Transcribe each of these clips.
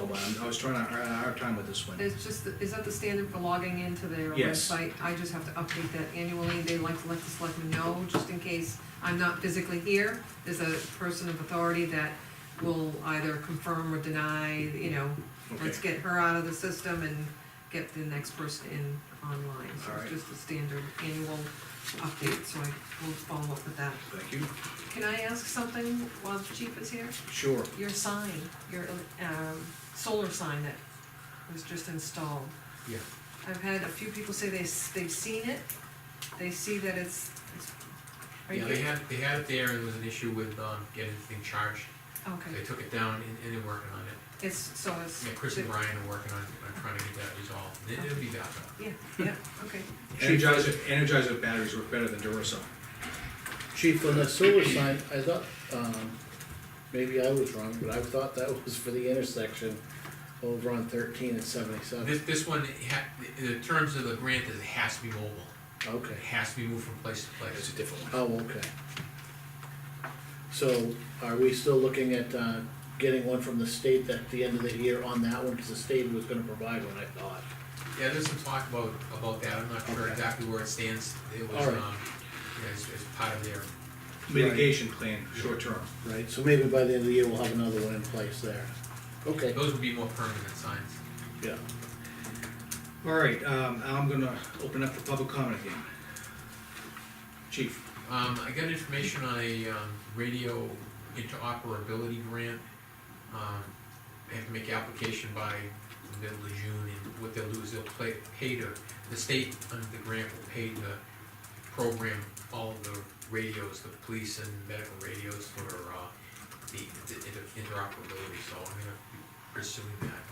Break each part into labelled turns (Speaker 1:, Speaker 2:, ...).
Speaker 1: one, I was trying to, I had a hard time with this one.
Speaker 2: It's just, is that the standard for logging into their
Speaker 1: Yes.
Speaker 2: website? I just have to update that annually, they like to let the selectmen know, just in case I'm not physically here. There's a person of authority that will either confirm or deny, you know, let's
Speaker 1: Okay.
Speaker 2: get her out of the system and get the next person in online. So
Speaker 1: Alright.
Speaker 2: it's just a standard annual update, so I will follow up with that.
Speaker 1: Thank you,
Speaker 2: Can I ask something while the chief is here?
Speaker 1: sure.
Speaker 2: Your sign, your, um, solar sign that was just installed.
Speaker 1: Yeah.
Speaker 2: I've had a few people say they, s- they've seen it, they see that it's, it's. are
Speaker 3: Yeah,
Speaker 2: you-
Speaker 3: they had, they had it there, and there was an issue with, um, getting the thing charged, they
Speaker 2: Okay,
Speaker 3: took it down, and, and they're working on it.
Speaker 2: it's, so it's.
Speaker 3: Yeah, Chris and Brian are working on, on trying to get that resolved, It- it'll be back up.
Speaker 2: Yeah, yeah, okay.
Speaker 1: Energizer, Energizer batteries work better than Duracell.
Speaker 4: Chief, on the solar sign, I thought, um, maybe I was wrong, but I thought that was for the intersection over on thirteen and seventy-seven.
Speaker 3: This, this one, it ha, the, the terms of the grant is it has to be mobile,
Speaker 4: Okay,
Speaker 3: it has to be moved from place to
Speaker 1: It's
Speaker 3: place.
Speaker 1: a different one.
Speaker 4: oh, okay. So are we still looking at, uh, getting one from the state at the end of the year on that one, cause the state was gonna provide one, I thought.
Speaker 3: Yeah, there's some talk about, about that, I'm not sure
Speaker 4: Okay.
Speaker 3: exactly where it stands, it was,
Speaker 4: All right.
Speaker 3: um, yeah, it's, it's part of their,
Speaker 1: Mitigation plan, short term.
Speaker 4: Right, so maybe by the end of the year, we'll have another one in place there. Okay,
Speaker 3: those would be more permanent signs.
Speaker 4: yeah.
Speaker 1: All right, um, I'm gonna open up for public comment again. Chief,
Speaker 3: Um, I got information on a, um, radio interoperability grant. Um, I have to make application by the middle of June, and what they'll do is they'll play, pay to, the state under the grant will pay to program all of the radios, the police and medical radios for, uh, the, the inter- interoperability, so I'm gonna be pursuing that.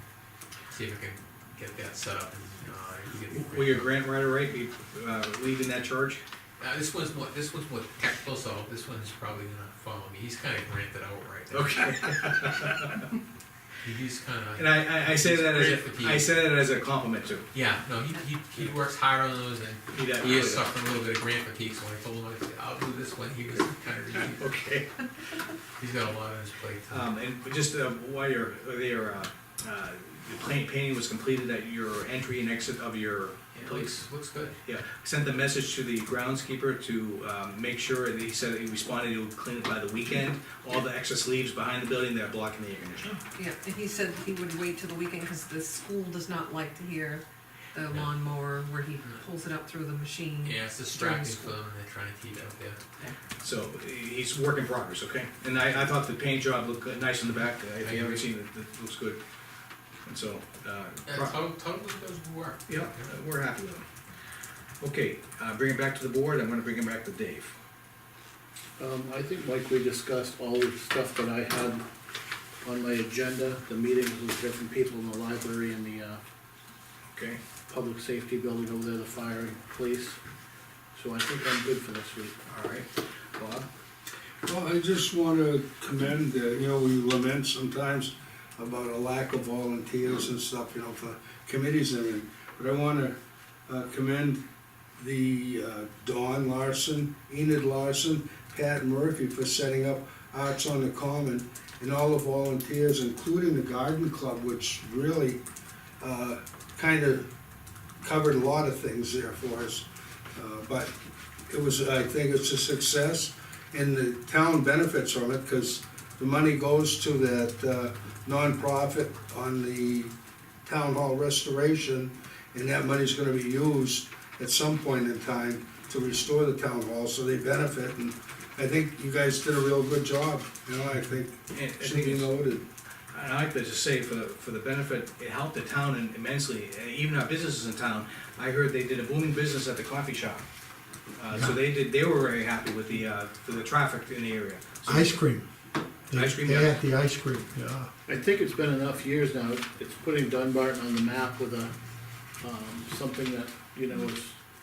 Speaker 3: See if I can get that set up and, uh, if we get the grant.
Speaker 1: will your grant writer rate be, uh, leading that charge?
Speaker 3: Uh, this one's more, this one's more technical, so this one's probably gonna follow me. He's kinda granted out right now.
Speaker 1: Okay.
Speaker 3: He- He's
Speaker 1: And
Speaker 3: kinda,
Speaker 1: I, I, I say that as, a- I say that as a compliment too.
Speaker 3: yeah, no, he, he, he works hard on those and
Speaker 1: He
Speaker 3: he
Speaker 1: definitely
Speaker 3: is
Speaker 1: does.
Speaker 3: suffering a little bit of grant fatigue, so when I told him, I said, I'll do this one, he was kinda, relieved.
Speaker 1: Okay,
Speaker 3: he's got a lot on his plate.
Speaker 1: um, and just, uh, while you're, there, uh, uh, the plain painting was completed at your entry and exit of your
Speaker 3: It
Speaker 1: place.
Speaker 3: looks, looks good.
Speaker 1: Yeah, sent the message to the groundskeeper to um, make sure, and he said he responded, he'll clean it by the weekend. All the excess leaves behind the building, they're blocking the air conditioning.
Speaker 2: Yeah, and he said he would wait till the weekend, cause the school does not like to hear the
Speaker 3: Yeah. Mm.
Speaker 2: lawnmower where he pulls it up through the machine.
Speaker 3: Yeah, it's distracting for them, and they're trying to keep it up there.
Speaker 1: So he- he's work in progress, okay? And I, I thought the paint job looked good, nice in the back, uh, if you haven't seen it, it looks good. And so, uh,
Speaker 3: Yeah,
Speaker 1: pro-
Speaker 3: totally, totally does work.
Speaker 1: yeah, we're happy with him. Okay, uh, bring it back to the board, I'm gonna bring it back to Dave.
Speaker 4: Um, I think, Mike, we discussed all the stuff that I had on my agenda, the meetings with different people in the library and the, uh,
Speaker 1: Okay,
Speaker 4: public safety building over there, the fire and police. So I think I'm good for this week.
Speaker 1: all right, Bob?
Speaker 5: Well, I just wanna commend, uh, you know, we lament sometimes about a lack of volunteers and stuff, you know, for committees and everything. But I wanna uh, commend the uh, Don Larson, Enid Larson, Pat Murphy for setting up Arts on the Common and all the volunteers, including the Garden Club, which really uh, kinda covered a lot of things there for us. Uh, But it was, I think it's a success and the town benefits from it, because the money goes to that uh, nonprofit on the town hall restoration, and that money's gonna be used at some point in time to restore the town hall, so they benefit, and I think you guys did a real good job, you know, I think
Speaker 1: And- and
Speaker 5: it should be noted.
Speaker 1: And I like to just say, for the, for the benefit, it helped the town immensely, and even our businesses in town. I heard they did a booming business at the coffee shop. Uh, so they did, they were very happy with the, uh, for the traffic in the area. So-
Speaker 6: Ice cream. They-
Speaker 1: Ice cream,
Speaker 6: They
Speaker 1: yeah.
Speaker 6: had the ice cream, yeah.
Speaker 4: I think it's been enough years now, it's putting Dunbarton on the map with a, um, something that, you know, is,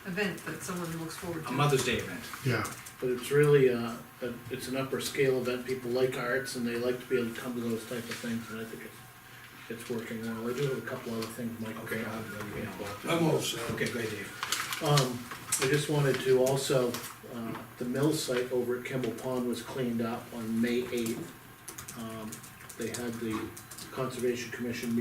Speaker 2: Event that someone looks forward to.
Speaker 1: A Mother's Day event.
Speaker 6: Yeah,
Speaker 4: but it's really, uh, a- it's an upper scale event, people like arts and they like to be able to come to those type of things, and I think it's, it's working well. I do have a couple other things, Mike.
Speaker 1: Okay, I'll- I'll-
Speaker 4: Yeah, Bob.
Speaker 5: I'm all set.
Speaker 1: Okay, great, Dave.
Speaker 4: Um, I just wanted to also, uh, the mill site over at Kimball Pond was cleaned up on May eighth. Um, they had the Conservation Commission